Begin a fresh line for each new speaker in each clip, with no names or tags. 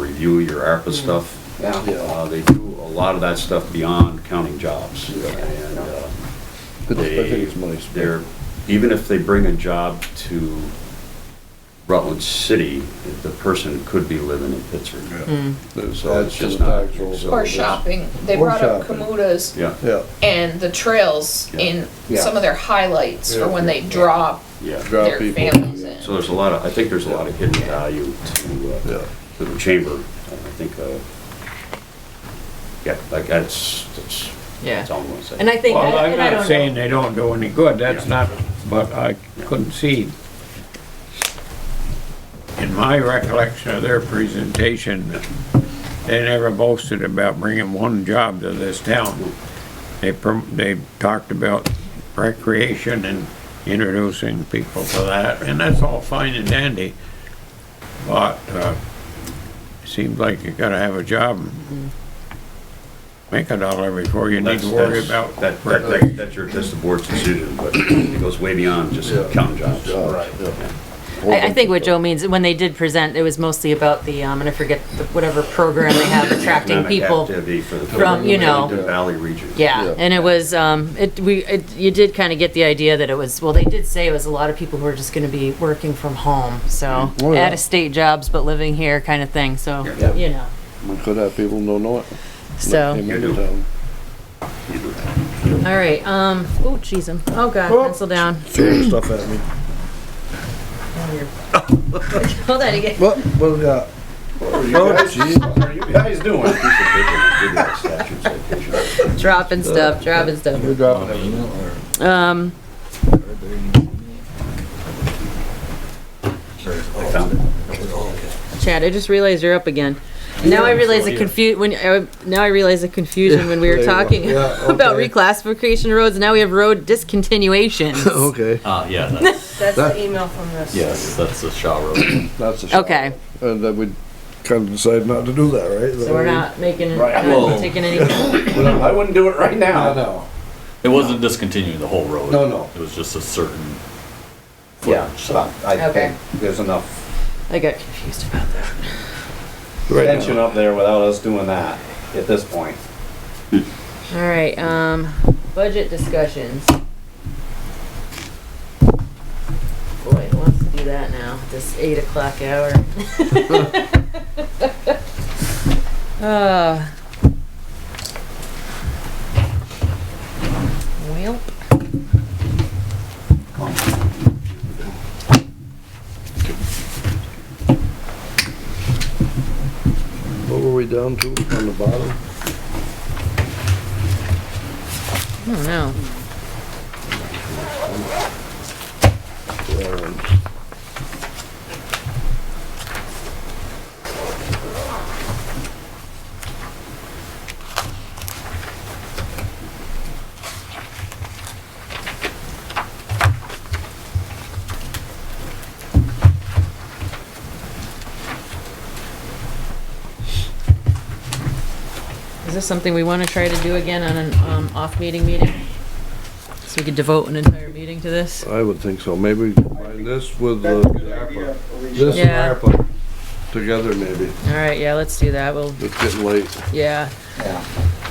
review your ARPA stuff.
Yeah.
Uh, They do a lot of that stuff beyond counting jobs.
Yeah.
And uh,
But I think it's money
they're,
spent.
even if they bring a job to Rutland City, the person could be living in
Mm.
Pittsburgh. So
Adds
it's
to
just
the
not.
actual-
so-
Or shopping. They
Or
brought up
shopping.
Kamutas
Yeah,
Yeah,
and the trails
Yeah.
in
Yeah.
some of their highlights
Yeah.
for when they draw
yeah.
Draw
their
people.
families in.
So there's a lot of, I think there's a lot of hidden value to,
yeah.
uh, to the chamber. I think, uh, yeah, like that's, that's,
Yeah.
that's all I'm gonna say.
And I think,
Well, I'm
and I
not
don't know.
saying they don't do any good, that's not, but I couldn't see. In my recollection of their presentation, they never boasted about bringing one job to this town. They, prom- they talked about recreation and introducing people to that, and that's all fine and dandy. But, uh, it seems like you gotta have a job and make a dollar before you need
That's-
to worry
that's-
about.
That, that, that- that's your, that's the board's decision, but it goes way beyond just
Yeah.
counting jobs.
Right.
I, I think what Joe means, when they did present, it was mostly about the, um, and I forget, the- whatever program they have attracting
Economic
people.
activity for the-
from, you know-
The Valley region.
Yeah.
Yeah, and it was, um, it, we, it, you did kind of get the idea that it was, well, they did say it was a lot of people who are just gonna be working from home, so,
Oh, yeah.
out-of-state jobs, but living here kind of thing, so,
Yeah.
you know,
We could have people who don't know it.
so,
Came into
You do.
town.
all right, um, oh, jeez, I'm- oh, God, pencil down.
Throwing stuff at me.
Hold on again.
What, what we got? Oh, gee.
What are you guys doing? Piece of paper, give that statute citation.
Dropping stuff, dropping stuff.
You're dropping it.
Um,
I found it.
Oh,
Chad, I just realized you're up again. Now I realize the confu, when, uh, now I realize the confusion when we were
There you are.
talking
Yeah,
about
okay.
reclassification of roads, now we have road discontinuations.
Okay,
Uh, yeah, that's,
That's the email from this.
yes, that's the Shaw Road.
that's a shot.
Okay,
And then we kind of decided not to do that, right?
so we're not making, not
Well-
taking any,
I wouldn't do it right
No,
now.
no.
It wasn't discontinuing the whole road.
No, no.
It was just a certain.
Yeah, so I
Okay.
think there's enough
I got confused about that.
tension up there without us doing that at this point.
All right, um, budget discussions. Boy, who wants to do that now, this eight o'clock hour? Uh. Well,
What were we down to on the bottom?
I don't know.
Um,
Is this something we wanna try to do again on an, um, off-meeting meeting? So we could devote an entire meeting to this?
I would think so. Maybe we combine this with the ARPA. This and
Yeah.
ARPA together maybe.
All right, yeah, let's do that, we'll,
It's getting late.
yeah.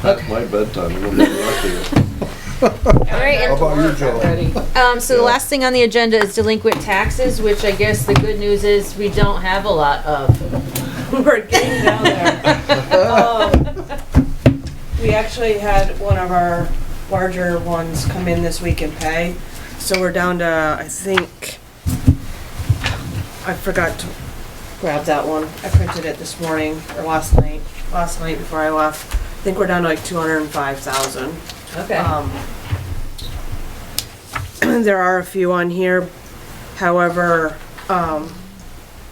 That's my bedtime. I'm gonna be lucky.
All right,
How about you, Joe?
Um, so the last thing on the agenda is delinquent taxes, which I guess the good news is we don't have a lot of.
We're getting down there. Um, We actually had one of our larger ones come in this week and pay, so we're down to, I think, I forgot to grab that one. I printed it this morning, or last night, last night before I left. I think we're down to like two hundred and five thousand.
Okay.
Um, There are a few on here, however, um,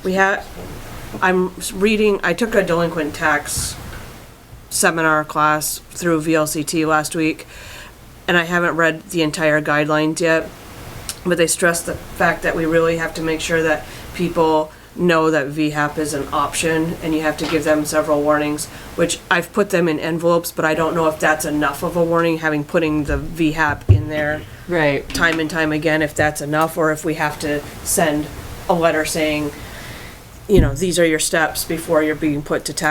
we had, I'm s- reading, I took a delinquent tax seminar class through VLCT last week, and I haven't read the entire guidelines yet, but they stressed the fact that we really have to make sure that people know that VHAP is an option, and you have to give them several warnings, which I've put them in envelopes, but I don't know if that's enough of a warning, having putting the VHAP in there
Right.
time and time again if that's enough or if we have to send a letter saying, you know, these are your steps before you're being put to tax